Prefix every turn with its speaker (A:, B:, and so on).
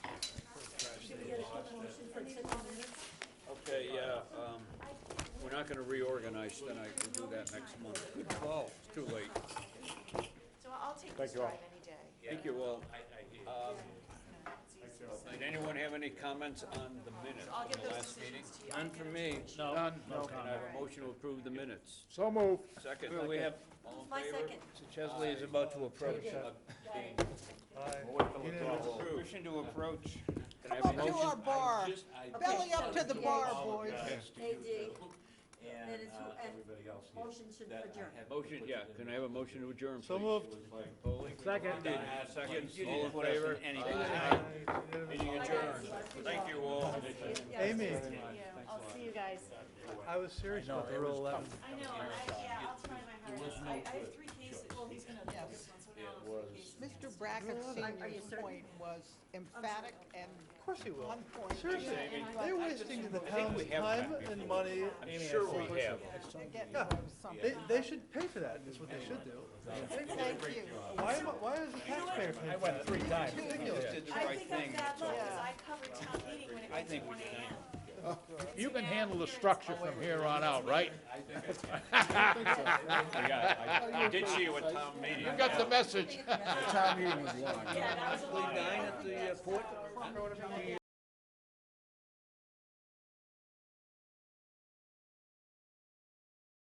A: um, not gonna reorganize tonight, we'll do that next month. Good call. It's too late.
B: So I'll take this
C: you all.
B: drive any day.
A: Thank you all. Um, Did anyone have any comments on the minutes
B: I'll
A: from
B: get
A: the
B: those
A: last meeting?
B: decisions to you.
A: None from me.
C: No.
A: None.
C: No
A: Can I have a motion to approve the minutes?
C: So moved.
A: Second. We have, all
B: My
A: in favor?
B: second.
D: Mr. Chesley is about to approach.
A: Motion to approach. Can I have
E: Come
A: a
E: up to
A: motion?
E: our bar,
A: Just- I
E: belly
A: just-
E: up to the bar, boys.
F: AD,
D: And
F: Minutes,
D: uh,
F: and
D: everybody else here.
F: motion to
D: That I
F: adjourn.
D: have to
A: Motion,
D: put
A: yeah,
D: it in
A: can I
D: there.
A: have a motion to adjourn, please?
C: So moved.
A: Second. Second, all in favor? Meeting adjourned. Thank you all.
C: Amy,
B: I'll see you guys.
C: I was serious about the Rule 11.
B: I know, I, yeah, I'll try my hardest. I, I have three cases, well, he's gonna do this one, so now I'll have three cases.
E: Mr. Brackett's senior's point was emphatic and
C: Of course you will.
E: on point.
C: Seriously, they're wasting the town's
A: we have
C: time
A: that
C: and money.
A: I'm sure we have.
E: They're getting
C: Yeah.
E: rid of something.
C: They, they should pay for that, is what they should do.
E: Thank you.
C: Why, am I- why is the taxpayer paying for that?
D: Three times.
C: Ridiculous.
B: I think I'm bad luck, because
E: Yeah.
B: I covered town meeting when it went to one AM.
G: You can handle the structure from here on out, right?
A: I got it. I- I did see you at town meeting.
G: You got the message.
B: Yeah, that was a long.
D: Nine at the uh, port?
B: Yeah.